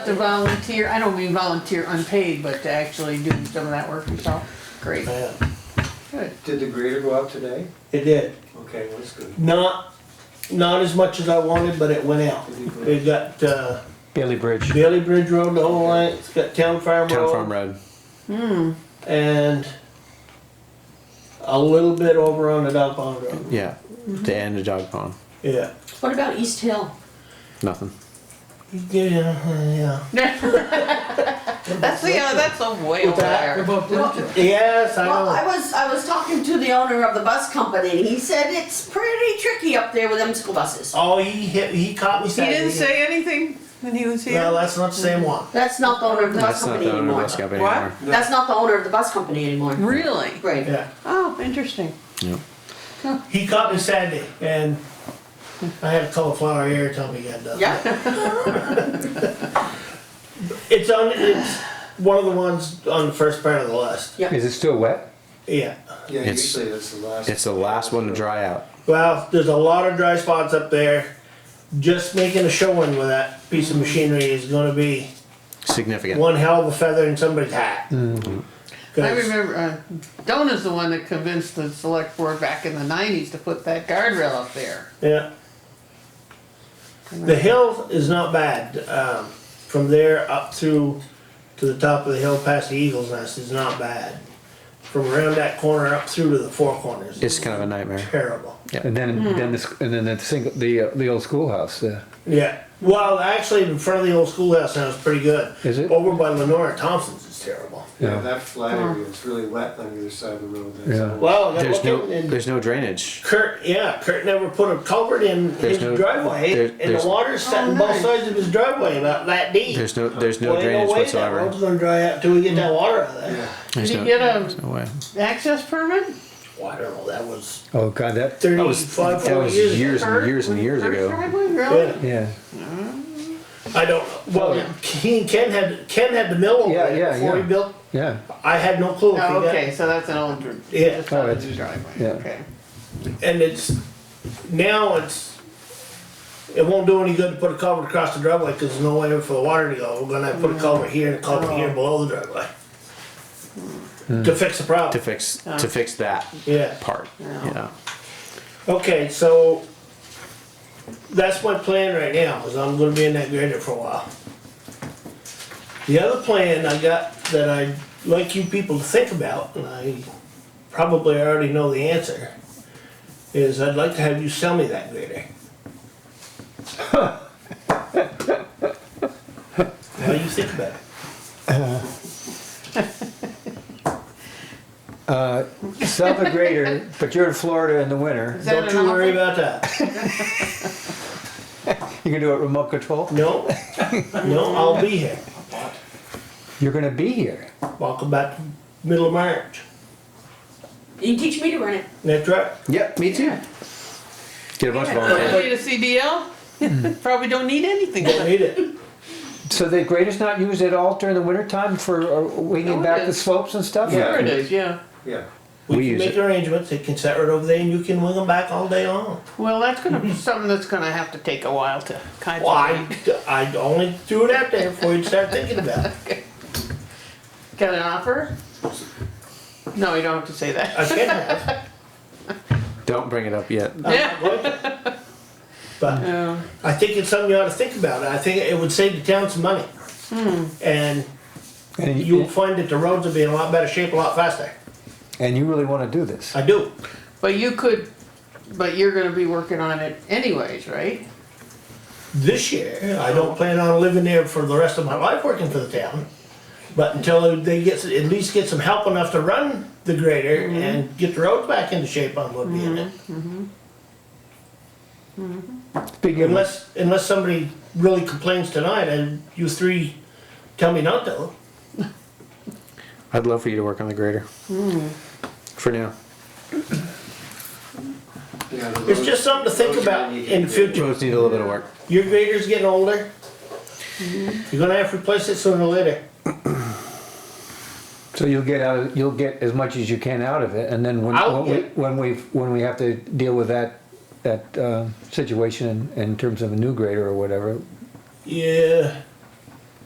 To volunteer, I don't mean volunteer unpaid, but to actually do some of that work yourself, great, Yeah, good. Did the grader go out today? It did. Okay, well, that's good. Not, not as much as I wanted, but it went out. It got, uh, Bailey Bridge, Bailey Bridge Road, the whole line, it's got Town Farm Town Farm Road. Road. And a little bit over on the Dow Pond Road, Yeah, to end a dog pond. yeah. What about East Hill? Nothing. Yeah, yeah. That's the, uh, that's a way over there. Yes, I Well, I know. was, I was talking to the owner of the bus company, and he said it's pretty tricky up there with them school buses. Oh, he hit, he caught me He Saturday. didn't say anything when he was No, here? that's not the same one. That's not the owner of the bus That's not company the owner of anymore. West Gap What? anymore. That's not the owner of the bus company anymore. Really? Right. Yeah, Oh, interesting. Yep. he caught me Saturday and I had a cauliflower ear till we got done. Yeah, It's on, it's one of the ones on the first part of the list, Is it still wet? yeah. Yeah, It's- usually that's the last. It's the last one to dry out. Well, there's a lot of dry spots up there. Just making a showing with that piece of machinery is gonna be Significant. one hell of a feather in somebody's hat. 'Cause- I remember, uh, Donna's the one that convinced the select board back in the nineties to put that guardrail up there. Yeah. The hill is not bad. Um, from there up through to the top of the hill past the Eagles Nest is not bad. From around that corner up through to the four corners It's is kind of a nightmare. terrible. And then, Hmm. then this, and then the single, the, uh, the old schoolhouse, uh, Yeah. Well, actually, in front of the old schoolhouse now is pretty good. Is it? Over by Lenora Thompson's is terrible. Yeah, Yeah. that flat area is really wet on the other side of the road. that's Yeah. all. Well, I There's got no, looking and there's no drainage. Kurt, yeah, Kurt never put a culvert in his There's no- driveway, there- and there's- the water's setting both sides of his driveway about that deep. There's no, there's Well, no ain't drainage way that whatsoever. road's gonna dry out till we get that water out of there. Yeah, Did There's he no, get there's a no way. access permit? Well, I don't know, that was oh god, that, That was, thirty-five, that forty was years. years ago. and years and years First ago. driveway, Really? Yeah. yeah. I don't know, well, he and Ken had, Ken had the mill over Yeah, there yeah, before he yeah. built, Yeah, I had no clue. if he Oh, got- okay, so that's an old, dr- Yeah. that's not Oh, a it's- new driveway, yeah. okay. And it's, now it's, it won't do any good to put a culvert across the driveway, cause there's no way for the water to go, we're gonna have to put a culvert here and a culvert here below the driveway. To fix the To problem, fix, Mm. Oh. to fix that yeah. part, yeah. Okay, so that's my plan right now, is I'm gonna be in that grader for a while. The other plan I got that I'd like you people to think about, and I probably already know the answer, is I'd like to have you sell me that grader. How do you think about it? sell the grader, but you're in Florida in the winter, Is that Don't an you worry offer? about that. you can do it remote control, No, no, I'll be here. you're gonna be here. Walk about the middle of March. you teach me to run it. That's right. Yep, me too. Get a bunch of volunteers. Hopefully the CDL, Hmm. probably don't need anything. Don't need it. So the grader's not used at all during the winter time for uh, No, winging it back the is. slopes and stuff? Sure it is, yeah. yeah. We We can use make it. arrangements, they can set right over there and you can wing them back all day long. Well, that's gonna be something that's gonna have to take a while to kind of. Well, I, I only threw it out there before you start thinking about it. Got an offer? No, you don't have to say that. I can have, Don't bring it up yet. Yeah. I'm not going to. But Yeah. I think it's something you ought to think about, I think it would save the town some money. Hmm. And And you'll you, find that the roads will be in a lot better shape a lot faster. and you really wanna do this? I do. But you could, but you're gonna be working on it anyways, right? This year, I don't plan on living there for the rest of my life working for the town. But until they get, at least get some help enough to run the grader Mm-hmm. and get the roads back into shape, I'm gonna be in it. Speaking of, Unless, unless somebody really complains tonight and you three tell me not to. I'd love for you to work on the grader. For now. Yeah, the It's road- just something to think roads about really need in the to future. Roads need a little bit of work. Your grader's getting older. You're gonna have to replace it sooner or later. so you'll get out, of- you'll get as much as you can out of it, and then when, I'll when we, get- when we, when we have to deal with that, that, uh, situation in, in terms of a new grader or whatever, Yeah,